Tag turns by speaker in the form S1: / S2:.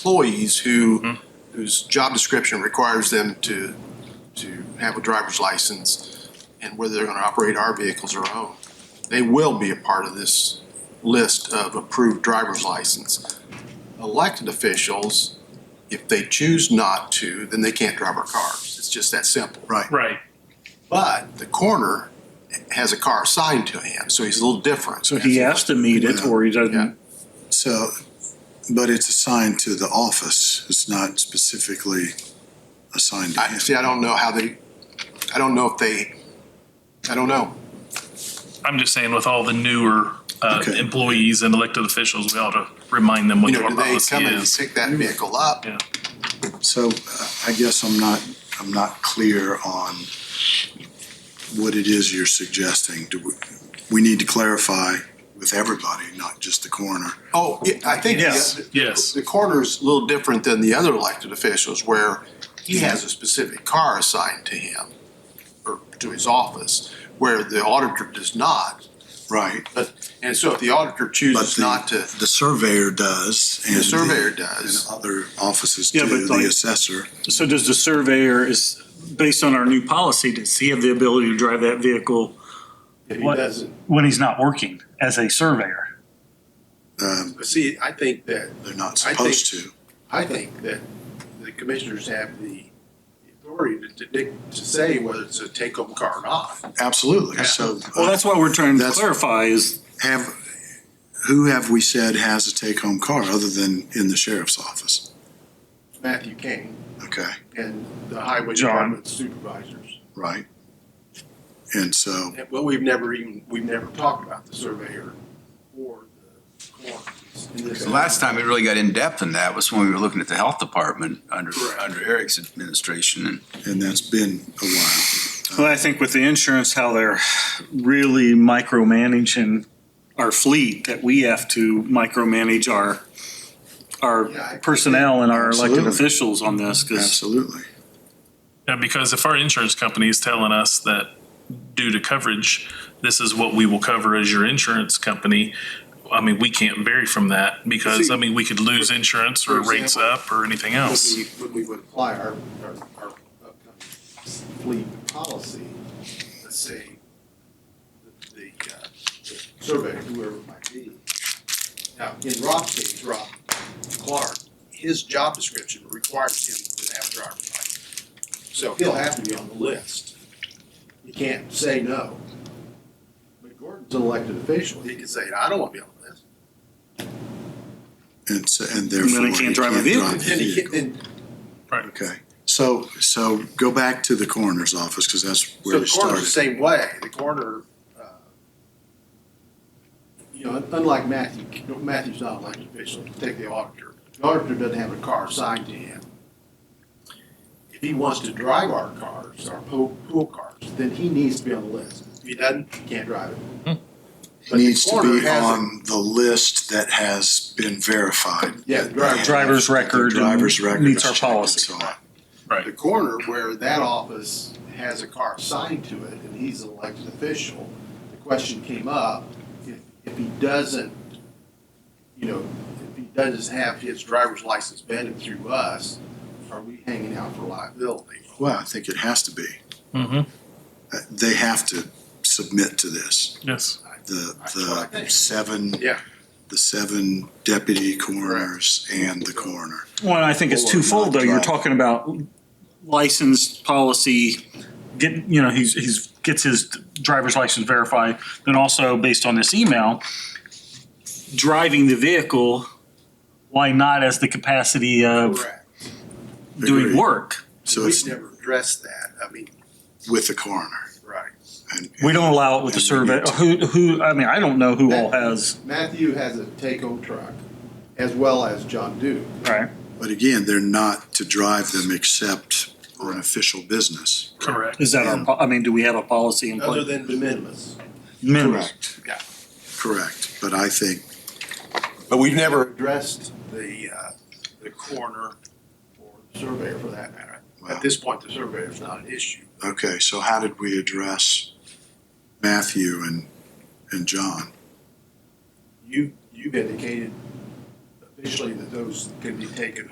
S1: employees who,
S2: Mm-hmm.
S1: whose job description requires them to, to have a driver's license and whether they're gonna operate our vehicles or own, they will be a part of this list of approved driver's license. Elected officials, if they choose not to, then they can't drive our cars. It's just that simple. Right.
S3: Right.
S1: But the coroner has a car assigned to him, so he's a little different.
S2: So he has to meet it or he
S1: Yeah.
S2: doesn't.
S4: So, but it's assigned to the office. It's not specifically assigned to
S1: I,
S4: him.
S1: see, I don't know how they, I don't know if they, I don't know.
S3: I'm just saying with all the newer uh,
S4: Okay.
S3: employees and elected officials, we ought to remind them what
S1: You know,
S3: our
S1: do they
S3: policy
S1: come and
S3: is.
S1: pick that vehicle up?
S3: Yeah.
S4: So uh, I guess I'm not, I'm not clear on what it is you're suggesting. Do we, we need to clarify with everybody, not just the coroner.
S1: Oh, yeah, I think.
S2: Yes,
S1: the-
S3: yes.
S1: The coroner's a little different than the other elected officials where he has a specific car assigned to him or to his office, where the auditor does not.
S4: Right.
S1: But, and so if the auditor
S4: But
S1: chooses
S4: the-
S1: not to,
S4: The surveyor does. and
S1: the surveyor does.
S4: And other offices
S2: Yeah,
S4: do,
S2: but like-
S4: the assessor.
S2: So does the surveyor is, based on our new policy, does he have the ability to drive that vehicle?
S1: He doesn't.
S5: when he's not working as a surveyor.
S4: Um,
S1: But see, I think that
S4: They're not
S1: I think-
S4: supposed to.
S1: I think that the commissioners have the authority to, to, to say whether it's a take-home car or not.
S4: Absolutely. So.
S2: Well, that's what we're trying to
S4: That's-
S2: clarify is,
S4: have, who have we said has a take-home car other than in the sheriff's office?
S1: Matthew King
S4: Okay,
S1: and the highway
S5: John.
S1: department supervisors.
S4: right? And so,
S1: And- Well, we've never even, we've never talked about the surveyor or the coroner. in this.
S6: The last time it really got in-depth in that was when we were looking at the health department under,
S1: Correct.
S6: under Eric's administration and
S4: and that's been a while.
S5: Well, I think with the insurance, how they're really micromanaging our fleet, that we have to micromanage our,
S1: Yeah, I-
S5: our personnel and our elected
S4: Absolutely.
S5: officials on this, because
S4: Absolutely.
S3: Yeah, because if our insurance company is telling us that due to coverage, this is what we will cover as your insurance company, I mean, we can't vary from that because, I mean, we could lose insurance or
S1: for
S3: rates
S1: example,
S3: up or anything
S1: When
S3: else.
S1: we, when we would apply our, our, our upcoming fleet policy, let's say, the, the, uh, the surveyor, whoever it might be. Now, in Rob's case, Rob Clark, his job description requires him to have a driver's license. So he'll have to be on the list. You can't say no. But Gordon's an elected official, he can say, I don't want to be on the list.
S4: And so, and therefore.
S2: he can't drive a vehicle.
S4: drive the
S1: And he can,
S4: vehicle.
S1: and
S4: Okay, so, so go back to the coroner's office, because that's where we
S1: So the coroner's the
S4: started.
S1: same way, the coroner, uh, you know, unlike Matthew, Matthew's not an elected official, take the auditor. The auditor doesn't have a car assigned to him. If he wants to drive our cars, our pool, pool cars, then he needs to be on the list. If he doesn't, he can't drive it.
S4: It Needs to
S1: But the
S4: be
S1: coroner has a-
S4: on the list that has been verified.
S1: Yeah, the driver's
S5: driver's record. and
S4: Driver's record.
S5: Meets our
S4: is checked and
S5: policy.
S4: so on.
S1: the corner where that office has a car assigned to it, and he's an elected official, the question came up, if, if he doesn't, you know, if he doesn't have his driver's license vetted through us, are we hanging out for liability?
S4: Well, I think it has to be.
S3: Mhm.
S4: Uh, They have to submit to this.
S3: Yes.
S4: The,
S1: That's what I
S4: the
S1: think.
S4: seven.
S1: Yeah.
S4: The seven deputy coroners and the coroner.
S5: Well, I think it's
S4: Or
S5: twofold, though.
S4: not
S5: You're
S4: drive.
S5: talking about licensed policy, get, you know, he's, he's, gets his driver's license verified, then also based on this email, driving the vehicle, why not as the capacity of
S1: Correct.
S4: Agreed.
S5: doing work?
S4: So
S1: We've
S4: it's
S1: never addressed that, I mean,
S4: with the coroner.
S1: right.
S4: And
S5: We don't allow it with the survey, who, who, I mean, I don't know who all has,
S1: Matthew has a take-home truck, as well as John Duke.
S5: right?
S4: But again, they're not to drive them except on official business.
S3: Correct.
S5: Is that our, po- I mean, do we have a policy in
S1: Other
S5: place?
S1: than de minimis.
S5: Minimum.
S1: Yeah.
S4: Correct. But I think
S1: But we've never addressed the, uh, the coroner or the surveyor for that matter.
S4: Wow.
S1: At this point, the surveyor's not an issue.
S4: Okay, so how did we address Matthew and, and John?
S1: You, you've indicated Visually, that those can be taken